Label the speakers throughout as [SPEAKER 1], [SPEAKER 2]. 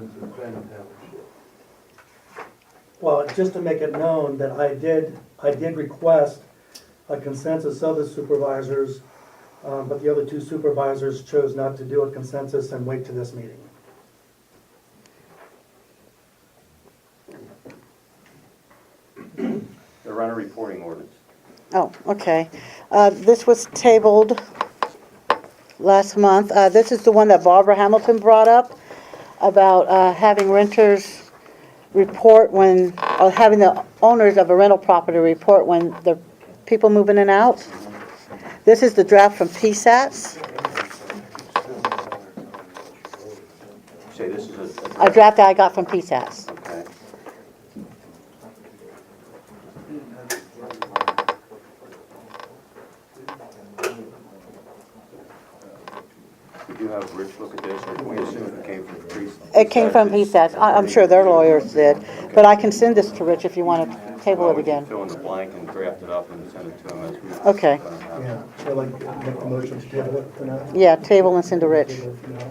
[SPEAKER 1] in Granite Township.
[SPEAKER 2] Well, just to make it known that I did, I did request a consensus of the supervisors, um, but the other two supervisors chose not to do a consensus and wait to this meeting.
[SPEAKER 3] The runner reporting ordinance.
[SPEAKER 4] Oh, okay. Uh, This was tabled last month. Uh, This is the one that Barbara Hamilton brought up about uh, having renters report when, or having the owners of a rental property report when the people move in and out. This is the draft from PSATs.
[SPEAKER 3] Say this is a,
[SPEAKER 4] A draft that I got from PSATs.
[SPEAKER 3] okay. Did you have Rich look at this, or we assume it came from the priest?
[SPEAKER 4] It came from PSATs. I- I'm sure their lawyers did, but I can send this to Rich if you want to table
[SPEAKER 3] Well,
[SPEAKER 4] it
[SPEAKER 3] we can
[SPEAKER 4] again.
[SPEAKER 3] Fill in the blank and draft it up and send it to him as we. uh,
[SPEAKER 4] Okay.
[SPEAKER 2] Yeah, so like, make the motion to table it for now?
[SPEAKER 4] Yeah, table and send to Rich.
[SPEAKER 2] Table it for now.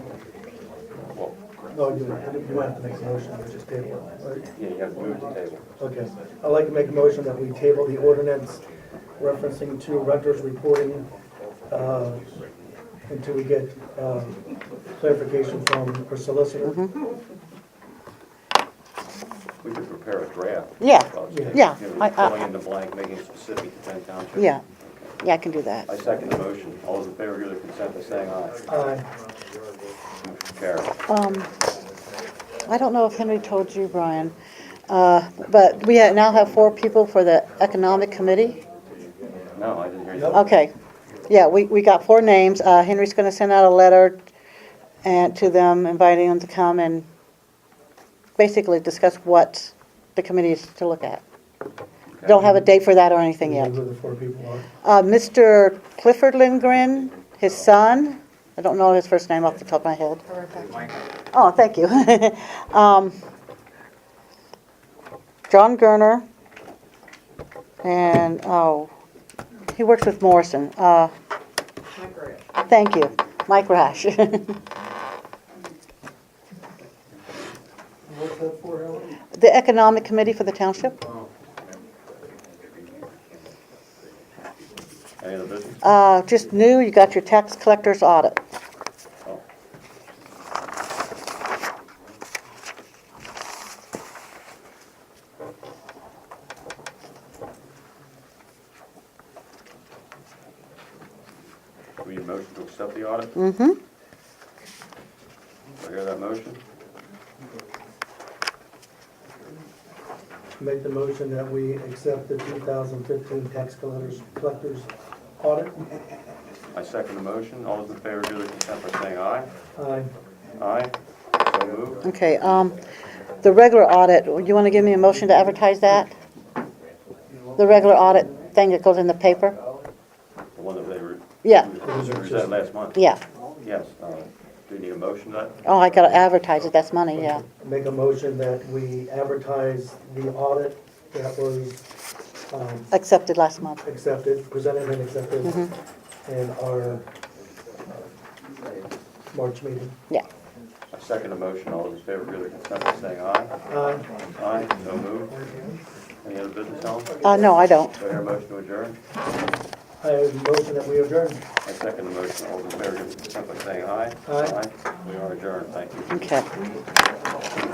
[SPEAKER 3] Well,
[SPEAKER 2] No, you, you won't have to make a motion, we just table it. right?
[SPEAKER 3] Yeah, you have to move the table.
[SPEAKER 2] Okay, I'd like to make a motion that we table the ordinance referencing to renters reporting uh, until we get um, clarification from our solicitor.
[SPEAKER 3] We could prepare a draft.
[SPEAKER 4] Yeah,
[SPEAKER 3] Well, it's-
[SPEAKER 4] yeah,
[SPEAKER 3] you know,
[SPEAKER 4] I- I-
[SPEAKER 3] Filling in the blank, making it specific to Penn Township.
[SPEAKER 4] Yeah, yeah, I can do that.
[SPEAKER 3] I second the motion. All those in favor give their consent by saying aye.
[SPEAKER 2] Aye.
[SPEAKER 3] Motion carried.
[SPEAKER 4] Um, I don't know if Henry told you, Brian, uh, but we ha- now have four people for the Economic Committee.
[SPEAKER 3] No, I didn't hear you.
[SPEAKER 4] Okay, yeah, we, we got four names. Uh, Henry's gonna send out a letter and, to them inviting them to come and basically discuss what the committee is to look at.
[SPEAKER 3] Okay.
[SPEAKER 4] Don't have a date for that or anything yet.
[SPEAKER 2] Who the four people are.
[SPEAKER 4] Uh, Mr. Clifford Lindgren, his son, I don't know his first name off the top of my head. Oh, thank you. Um, John Gerner, and, oh, he works with Morrison. Uh, Thank you, Mike Rash. The
[SPEAKER 2] What's that for, Helen?
[SPEAKER 4] Economic Committee for the Township.
[SPEAKER 3] Any other business?
[SPEAKER 4] Uh, Just new, you got your tax collector's audit.
[SPEAKER 3] Oh. We need a motion to accept the audit? Do
[SPEAKER 4] Mm-hmm.
[SPEAKER 3] I hear that motion?
[SPEAKER 2] Make the motion that we accept the 2015 tax collectors, collectors audit.
[SPEAKER 3] I second the motion. All those in favor give their consent by saying aye.
[SPEAKER 2] Aye.
[SPEAKER 3] Aye. So moved.
[SPEAKER 4] Okay, um, the regular audit, you want to give me a motion to advertise that? The regular audit thing that goes in the paper?
[SPEAKER 3] The one that they were.
[SPEAKER 4] Yeah.
[SPEAKER 3] Was that last month?
[SPEAKER 4] Yeah.
[SPEAKER 3] Yes. uh, Do you need a motion to that?
[SPEAKER 4] Oh, I gotta advertise it, that's money, yeah.
[SPEAKER 2] Make a motion that we advertise the audit that was um,
[SPEAKER 4] Accepted last month.
[SPEAKER 2] accepted, presented and accepted in our uh, March meeting.
[SPEAKER 4] Yeah.
[SPEAKER 3] I second the motion. All those in favor give their consent by saying aye.
[SPEAKER 2] Aye.
[SPEAKER 3] Aye. So moved. Any other business, Helen? Do
[SPEAKER 4] Uh, no, I don't.
[SPEAKER 3] I hear a motion to adjourn?
[SPEAKER 2] I have a motion that we adjourn.
[SPEAKER 3] I second the motion. All those in favor give their consent by saying aye.
[SPEAKER 2] Aye.
[SPEAKER 3] We are adjourned. Thank you.
[SPEAKER 4] Okay.